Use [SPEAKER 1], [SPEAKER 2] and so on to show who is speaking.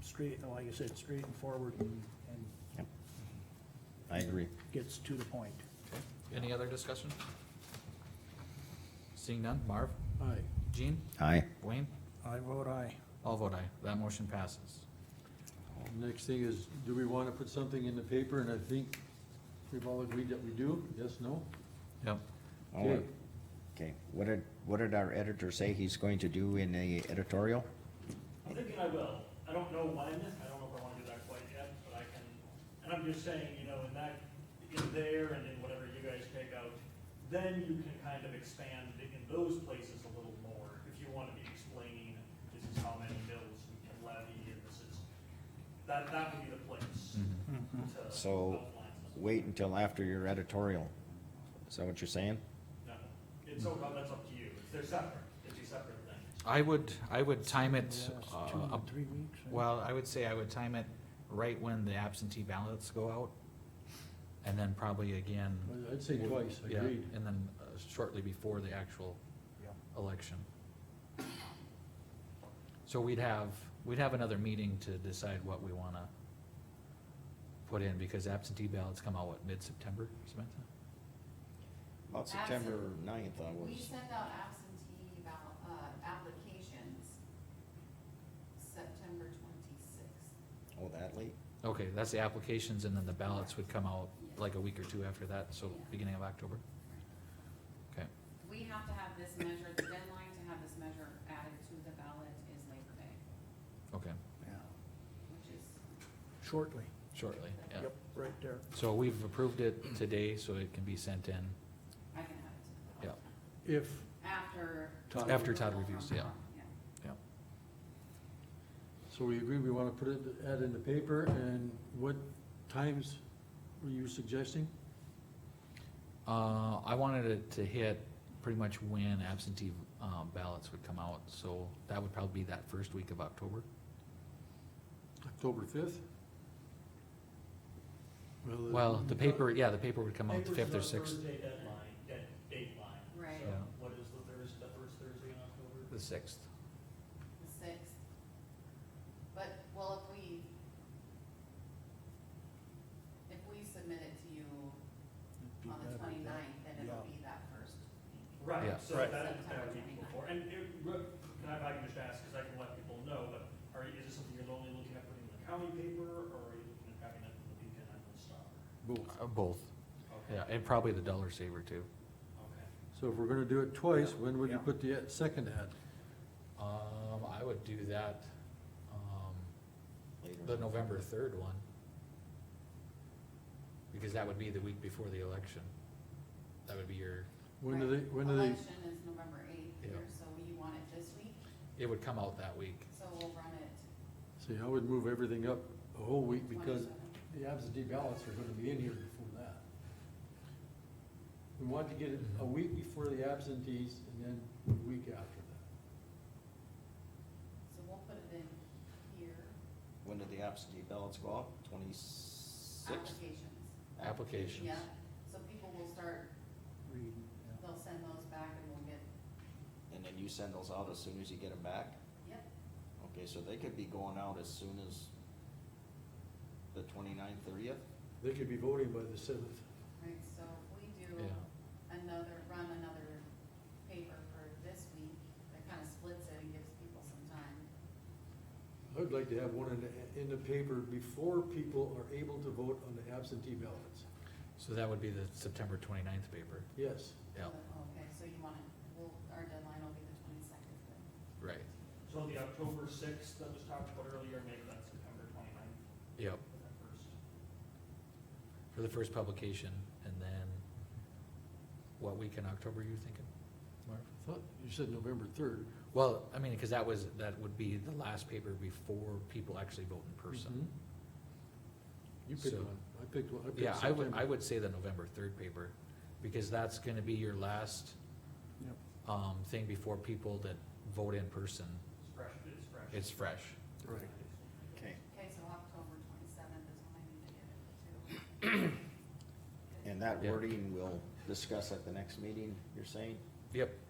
[SPEAKER 1] straight, like I said, straight and forward and, and
[SPEAKER 2] Yep. I agree.
[SPEAKER 1] gets to the point.
[SPEAKER 3] Any other discussion? Seeing none, Marv,
[SPEAKER 1] Aye.
[SPEAKER 3] Jean,
[SPEAKER 2] Aye.
[SPEAKER 3] Wayne,
[SPEAKER 1] I vote aye.
[SPEAKER 3] all vote aye, that motion passes.
[SPEAKER 4] Next thing is, do we wanna put something in the paper, and I think we've all agreed that we do, yes, no?
[SPEAKER 3] Yep.
[SPEAKER 2] Oh, Okay, what did, what did our editor say he's going to do in the editorial?
[SPEAKER 5] I'm thinking I will. I don't know when, I don't know if I wanna do that quite yet, but I can, and I'm just saying, you know, in that, in there and in whatever you guys take out, then you can kind of expand in those places a little more, if you wanna be explaining, this is how many bills we can levy, and this is, that, that would be the place to outline
[SPEAKER 2] So,
[SPEAKER 5] something.
[SPEAKER 2] wait until after your editorial. Is that what you're saying?
[SPEAKER 5] No, it's, so- that's up to you. It's- They're separate, it's a separate thing.
[SPEAKER 3] I would, I would time it,
[SPEAKER 1] Yes,
[SPEAKER 3] uh,
[SPEAKER 1] two,
[SPEAKER 3] up-
[SPEAKER 1] three weeks. I-
[SPEAKER 3] well, I would say I would time it right when the absentee ballots go out. And then probably again.
[SPEAKER 4] I- I'd say twice,
[SPEAKER 3] Yeah,
[SPEAKER 4] agreed.
[SPEAKER 3] And then uh, shortly before the actual
[SPEAKER 1] Yeah.
[SPEAKER 3] election. So we'd have, we'd have another meeting to decide what we wanna put in, because absentee ballots come out, what, mid-September, Samantha?
[SPEAKER 2] About September ninth, I
[SPEAKER 6] We
[SPEAKER 2] was,
[SPEAKER 6] send out absentee ballot, uh, applications September twenty-sixth.
[SPEAKER 2] oh, that late?
[SPEAKER 3] Okay, that's the applications, and then the ballots would come out like a week or two after that, so
[SPEAKER 6] Yeah.
[SPEAKER 3] beginning of October? Okay,
[SPEAKER 6] We have to have this measure, the deadline to have this measure added to the ballot is Labor Day,
[SPEAKER 3] okay,
[SPEAKER 1] Yeah,
[SPEAKER 6] which is,
[SPEAKER 1] Shortly.
[SPEAKER 3] shortly, yeah.
[SPEAKER 1] Yep, right there.
[SPEAKER 3] So we've approved it today, so it can be sent in,
[SPEAKER 6] I can add it to the ballot.
[SPEAKER 1] If,
[SPEAKER 6] After.
[SPEAKER 4] Todd-
[SPEAKER 3] After Todd
[SPEAKER 6] approval
[SPEAKER 3] reviews,
[SPEAKER 6] from
[SPEAKER 3] yeah.
[SPEAKER 6] Tom,
[SPEAKER 3] yeah.
[SPEAKER 4] So we agree, we wanna put it, add in the paper, and what times were you suggesting?
[SPEAKER 3] Uh, I wanted it to hit pretty much when absentee, um, ballots would come out, so that would probably be that first week of October.
[SPEAKER 4] October fifth? uh,
[SPEAKER 3] Well, the paper, yeah, the paper would come out the fifth or
[SPEAKER 5] Paper's the
[SPEAKER 3] sixth.
[SPEAKER 5] Thursday deadline, dead, dateline.
[SPEAKER 6] Right.
[SPEAKER 5] So
[SPEAKER 3] Yeah.
[SPEAKER 5] What is the Thursday, the first Thursday in October?
[SPEAKER 3] The sixth.
[SPEAKER 6] The sixth. But, well, if we, if we submit it to you
[SPEAKER 1] it'd be
[SPEAKER 6] on
[SPEAKER 1] better
[SPEAKER 6] the
[SPEAKER 1] than-
[SPEAKER 6] twenty-ninth, then
[SPEAKER 1] Yeah.
[SPEAKER 6] it'll be that first meeting.
[SPEAKER 3] Yeah.
[SPEAKER 5] Right, so
[SPEAKER 1] Right.
[SPEAKER 5] that, that would be
[SPEAKER 6] September
[SPEAKER 5] before, and it, re- can I, if I can just ask, because I can let people know, but are, you- is this something you're only looking at putting in the county paper, or are you looking at having it in the Beacon and the Star?
[SPEAKER 4] Both.
[SPEAKER 3] Uh, both,
[SPEAKER 5] Okay,
[SPEAKER 3] yeah, and probably the dollar saver too.
[SPEAKER 5] okay.
[SPEAKER 4] So if we're gonna do it twice, when would you
[SPEAKER 1] Yeah.
[SPEAKER 4] put the ad- second ad?
[SPEAKER 3] Um, I would do that, um,
[SPEAKER 2] Later.
[SPEAKER 3] the November third one. Because that would be the week before the election. That would be your,
[SPEAKER 4] When do they,
[SPEAKER 6] Right.
[SPEAKER 4] when do they,
[SPEAKER 6] Election is November eighth here, so you want it this week,
[SPEAKER 3] it would come out that week.
[SPEAKER 6] so we'll run it
[SPEAKER 4] see, I would move everything up a whole week because
[SPEAKER 6] twenty-seventh.
[SPEAKER 4] the absentee ballots are gonna be in here before that. We want to get it a week before the absentees and then a week after that.
[SPEAKER 6] So we'll put it in here,
[SPEAKER 2] When did the absentee ballots go out? Twenty-sixth?
[SPEAKER 6] applications.
[SPEAKER 3] Applications.
[SPEAKER 6] Yeah, so people will start,
[SPEAKER 1] Reading, yeah.
[SPEAKER 6] they'll send those back and we'll get,
[SPEAKER 2] And then you send those out as soon as you get them back?
[SPEAKER 6] yep,
[SPEAKER 2] Okay, so they could be going out as soon as the twenty-ninth, thirtieth?
[SPEAKER 4] They could be voting by the seventh.
[SPEAKER 6] right, so if we do
[SPEAKER 3] Yeah.
[SPEAKER 6] another, run another paper for this week, that kind of splits it and gives people some time.
[SPEAKER 4] I would like to have one in the, in the paper before people are able to vote on the absentee ballots.
[SPEAKER 3] So that would be the September twenty-ninth paper.
[SPEAKER 4] Yes,
[SPEAKER 3] Yeah,
[SPEAKER 6] Okay, so you want it, we'll, our deadline will be the twenty-second then.
[SPEAKER 3] right,
[SPEAKER 5] So the October sixth that was talked about earlier, maybe that's September twenty-ninth,
[SPEAKER 3] yep.
[SPEAKER 5] that first.
[SPEAKER 3] for the first publication, and then what week in October are you thinking, Marv?
[SPEAKER 4] I thought you said November third.
[SPEAKER 3] Well, I mean, because that was, that would be the last paper before people actually vote in
[SPEAKER 4] Mm-hmm.
[SPEAKER 3] person.
[SPEAKER 4] You picked
[SPEAKER 3] So-
[SPEAKER 4] one, I picked one, I picked
[SPEAKER 3] Yeah, I would, I
[SPEAKER 4] September.
[SPEAKER 3] would say the November third paper, because that's gonna be your last
[SPEAKER 1] Yep.
[SPEAKER 3] um, thing before people that vote in person,
[SPEAKER 5] It's fresh, it's fresh.
[SPEAKER 3] it's fresh.
[SPEAKER 4] Right.
[SPEAKER 2] Okay.
[SPEAKER 6] Okay, so October twenty-seventh is when I need to get it to.
[SPEAKER 2] And that
[SPEAKER 3] Yeah.
[SPEAKER 2] wording we'll discuss at the next meeting, you're saying?
[SPEAKER 3] Yep,